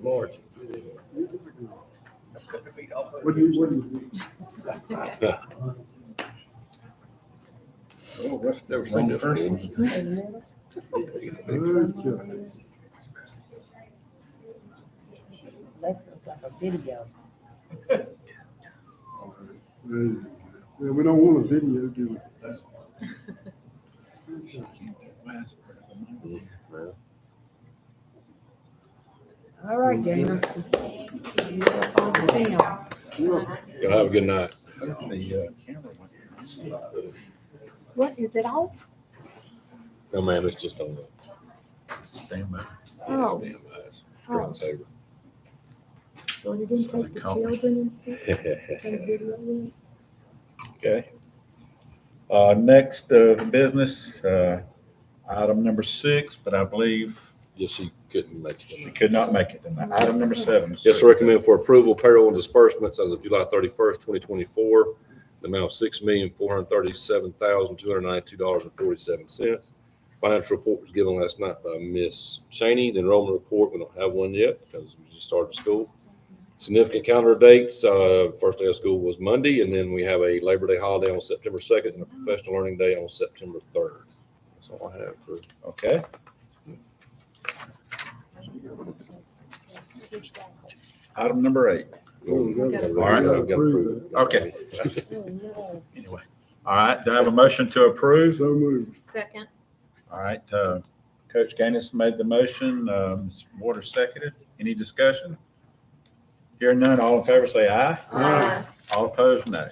Lord. What do you, what do you think? Never seen this before. Okay. That looks like a video. Yeah, we don't want a video, do All right, gamers. You have fun to see 'em. we? Yeah. Y'all have a good night. What, is it off? No, ma'am, it's just on the. Stand by. Oh. Damn eyes. Strong saver. So they didn't take the children and stuff, they video it? Okay. Uh, next, uh, business, uh, item number six, but I believe Yes, she couldn't make it. she tonight. could not make it tonight. Item number seven. Yes, sir, recommend for approval payroll and disbursements as of July thirty-first, twenty twenty-four, the amount of six million, four hundred thirty-seven thousand, two hundred ninety-two dollars and forty-seven cents. Financial report was given last night by Miss Cheney. The enrollment report, we don't have one yet because we just started school. Significant calendar dates, uh, first day of school was Monday, and then we have a Labor Day holiday on September second and a professional learning day on September third. That's all I have for Okay, item number eight. right. We've got approved. Okay. Oh, no. Anyway, all right, do I have a motion to approve? So moved. Second. All right, uh, Coach Gaines made the motion, um, Ms. Waters seconded. Any discussion? Hearing none, all in favor say aye. Aye. All opposed, no.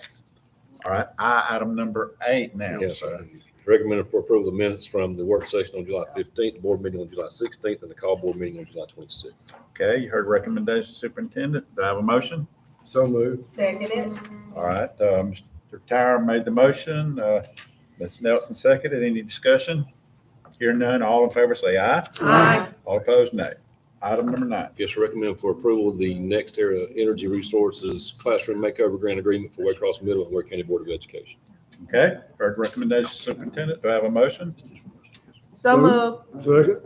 All right, I, item number eight now, Yes, sir. sir. Recommended for approval of the minutes from the work session on July fifteenth, the board meeting on July sixteenth, and the call board meeting on July twenty-sixth. Okay, you heard recommendation, superintendent. Do I have a motion? So moved. Seconded. All right, uh, Mr. Tyra made the motion, uh, Ms. Nelson seconded. Any discussion? Hearing none, all in favor say aye. Aye. All opposed, no. Item number nine. Yes, recommended for approval of the next era energy resources classroom makeover grant agreement for Waycross Middle and Ware County Board of Education. Okay, heard recommendation, superintendent. Do I have a motion? So moved. Second?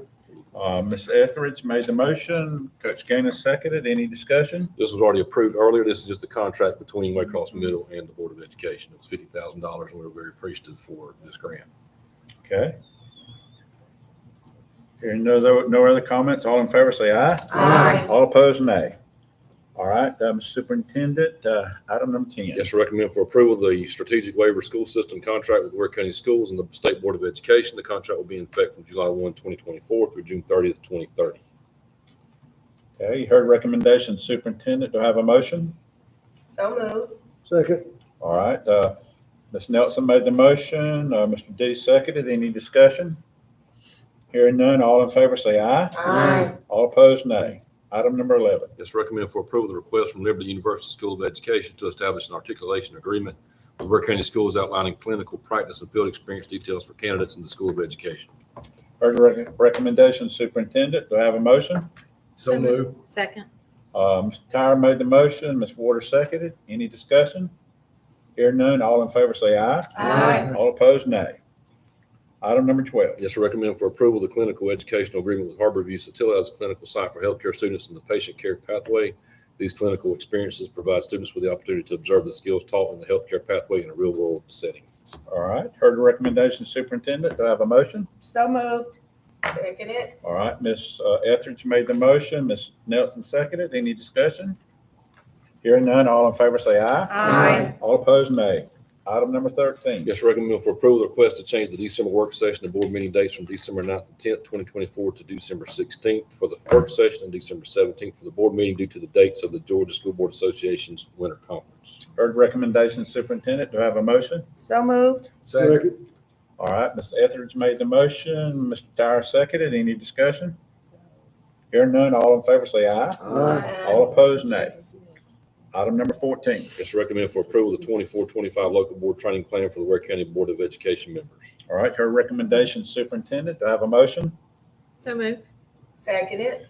Uh, Ms. Etheridge made the motion. Coach Gaines seconded. Any discussion? This was already approved earlier. This is just a contract between Waycross Middle and the Board of Education. It was fifty thousand dollars, and we were very appreciative for this grant. Okay. Hearing no, other- no other comments, all in favor, say aye. Aye. All opposed, nay. All right, um, Superintendent, uh, item number ten. Yes, sir. recommend for approval the strategic waiver school system contract with Ware County Schools and the State Board of Education. The contract will be in effect from July 1, 2024 through June thirtieth, 2030. Okay, you heard recommendation, Superintendent, do I have a motion? So moved. Second. All right, uh, Ms. Nelson made the motion, uh, Mr. D seconded, any discussion? Hearing none, all in favor, say aye. Aye. All opposed, nay. Item number eleven. Yes, recommend for approval the request from Liberty University School of Education to establish an articulation agreement with Ware County Schools outlining clinical practice and field experience details for candidates in the School of Education. Heard rec- recommendation, Superintendent, do I have a motion? So moved. Second. Uh, Mr. Tyra made the motion, Ms. Waters seconded. Any discussion? Hear none, all in favor say aye. Aye. All opposed, nay. Item number 12. Yes, sir. recommend for approval the clinical educational agreement with Harborview Satilla as a clinical site for healthcare students in the patient care pathway. These clinical experiences provide students with the opportunity to observe the skills taught in the healthcare pathway in a real-world setting. All right, heard the recommendation, Superintendent, do I have a motion? So moved. Seconded. All right, Ms. uh, Etheridge made the motion, Ms. Nelson seconded. Any discussion? Hearing none, all in favor say aye. Aye. All opposed, nay. Item number 13. Yes, sir. recommend for approval the request to change the December work session and board meeting dates from December 9th and tenth, twenty twenty-four to December sixteenth for the work session and December seventeenth for the board meeting due to the dates of the Georgia School Board Association's winter conference. Heard the recommendation, Superintendent, do I have a motion? So moved. Second. All right, Ms. Etheridge made the motion, Mr. Dyer seconded. Any discussion? Hearing none, all in favor say aye. Aye. All opposed, nay. Item number 14. Yes, sir. recommend for approval the 24-25 local board training plan for the Ware County Board of Education members. All right, her recommendation, Superintendent, do I have a motion? So moved. Seconded.